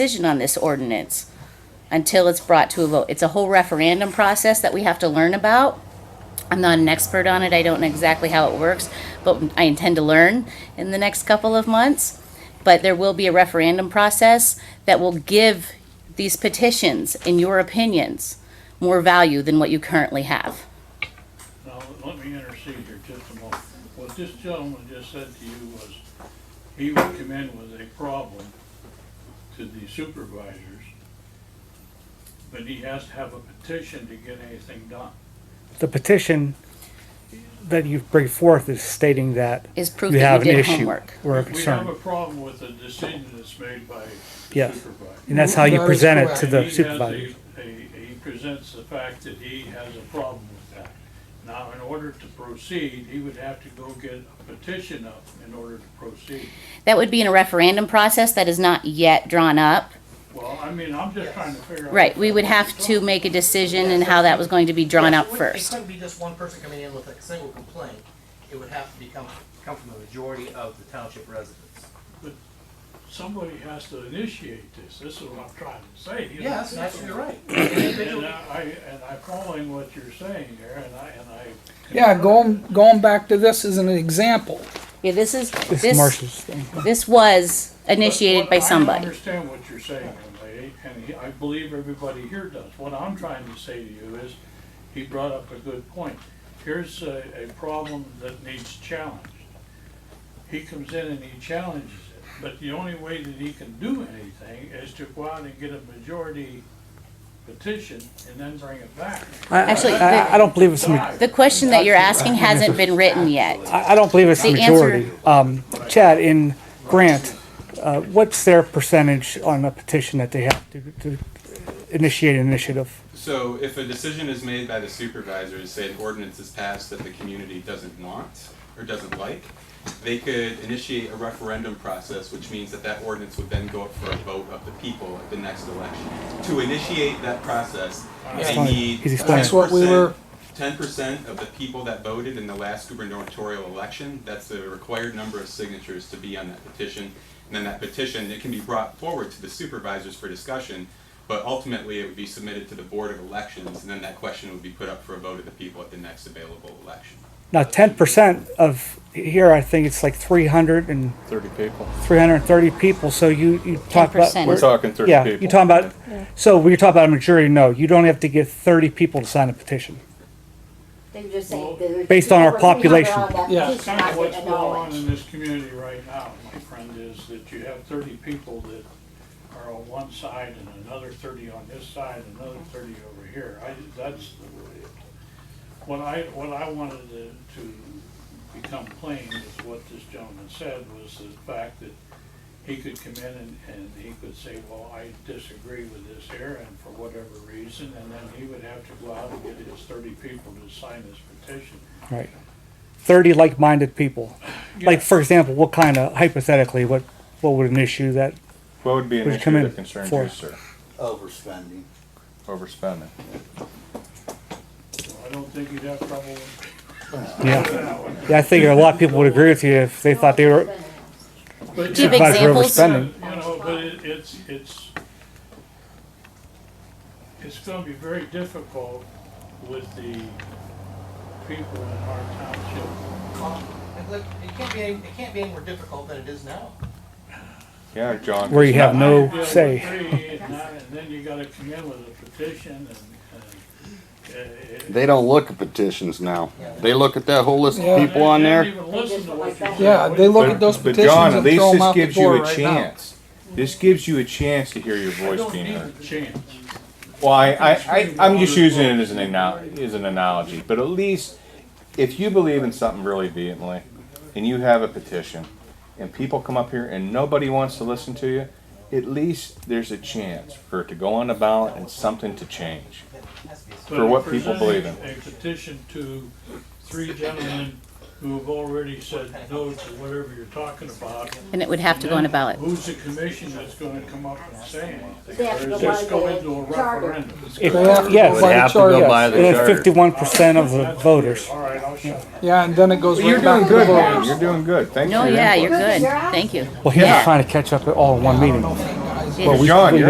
decision on this ordinance until it's brought to a vote. It's a whole referendum process that we have to learn about. I'm not an expert on it, I don't know exactly how it works, but I intend to learn in the next couple of months. But there will be a referendum process that will give these petitions and your opinions more value than what you currently have. Now, let me intercede here just a moment. What this gentleman just said to you was, he would come in with a problem to the supervisors, but he has to have a petition to get anything done. The petition that you bring forth is stating that Is proof you that have you an did issue homework. or a We have a concern. problem with a decision that's made by Yes. supervisor. And that's how you That is present it correct. to And he the has supervisors. a- a- He presents the fact that he has a problem with that. Now, in order to proceed, he would have to go get a petition up in order to proceed. That would be in a referendum process that is not yet drawn up. Well, I mean, I'm just trying to figure out. Right, we would have to make a decision and how that was going to be drawn Yeah, up it wouldn't- It first. couldn't be just one person coming in with a single complaint. It would have to become, come from a majority of the township residents. Somebody has to initiate this, this is what I'm trying to say. you know? Yes, that's, you're right. And Individual- I, and I'm following what you're saying here, and I, and I. Yeah, going, going back to this as an example. Yeah, this is, This is this, Marshall's thing. this was But initiated what- by I somebody. understand what you're saying, young lady, and he- I believe everybody here does. What I'm trying to say to you is, he brought up a good point. Here's a, a problem that needs challenged. He comes in and he challenges it, but the only way that he can do anything is to go out and get a majority petition and then bring it back. I- Actually, I, I- I don't believe it's, a ma- Die. The question that you're asking hasn't been written yet. I, I don't believe it's the The answer- majority. Um, Chad, in Grant, uh, what's their percentage on a petition that they have to, to initiate an initiative? So if a decision is made by the supervisors, say an ordinance is passed that the community doesn't want or doesn't like, they could initiate a referendum process, which means that that ordinance would then go up for a vote of the people at the next election. To initiate that process, they fine. need He's explaining. ten That's what we were- percent, ten percent of the people that voted in the last gubernatorial election. That's the required number of signatures to be on that petition. And then that petition, it can be brought forward to the supervisors for discussion, but ultimately it would be submitted to the Board of Elections, and then that question would be put up for a vote of the people at the next available election. Now, ten percent of, here, I think it's like three hundred and, 30 people. three hundred and thirty people, so you, you talk about. 10%. We're talking 30 Yeah, people. you're talking about, so when you're talking about a majority, no, you don't have to get thirty people to sign a petition. They just say that- Based on our Whatever we have population. around that Yeah. piece, Kind I of would what's going on acknowledge. in this community right now, my friend, is that you have thirty people that are on one side and another thirty on this side, another thirty over here. I, that's the- what I, what I wanted to, to become plain is what this gentleman said was the fact that he could come in and, and he could say, well, I disagree with this here and for whatever reason, and then he would have to go out and get his thirty people to sign this petition. Right. Thirty like-minded people. Like, for example, what kind of, hypothetically, what, what would an issue that, What would be an Would you come issue in that concerns for- you, sir? overspending. Overspending. I don't think you'd have trouble with yeah. Yeah, I think a lot of people would agree with you if they thought they were, But, Do you you have know, Supervisor examples? overspending. you know, but it, it's, it's, it's gonna be very difficult with the people in our township. um, It look- it can't be, any- it can't be any more difficult than it is now. Yeah, John. where you it's have not- You no know, say. three And nine, and then you gotta come in with a petition and, and. uh, They don't look at petitions now. They look at that whole list of people on they don't there. even listen to what you say. Yeah, they look at those But petitions John, at and least throw them this out the gives you door a right now. chance. This gives you a chance to hear your I voice don't being need heard. the chance. Well, I, I, I, I'm just using it as an analogy, as an analogy, but at least if you believe in something really vehemently and you have a petition and people come up here and nobody wants to listen to you, at least there's a chance for it to go on the ballot and something to change. For what people believe in. Presenting A petition to three gentlemen who have already said no to whatever you're talking about. And it would have to go on a ballot. Who's the commission that's gonna come up and say anything? They have to Or go is this by go the into a charter. referendum? If- They have to yes. go by the charter, yes. And fifty-one percent of the voters. All right, I'll shut up. Yeah, and then it goes You're right back doing to the good, voters. man. You're doing good. Thanks No, for your yeah, input. you're good. Thank you. Well, he's Yeah. trying to catch up all in one meeting. She Well, is. John, you're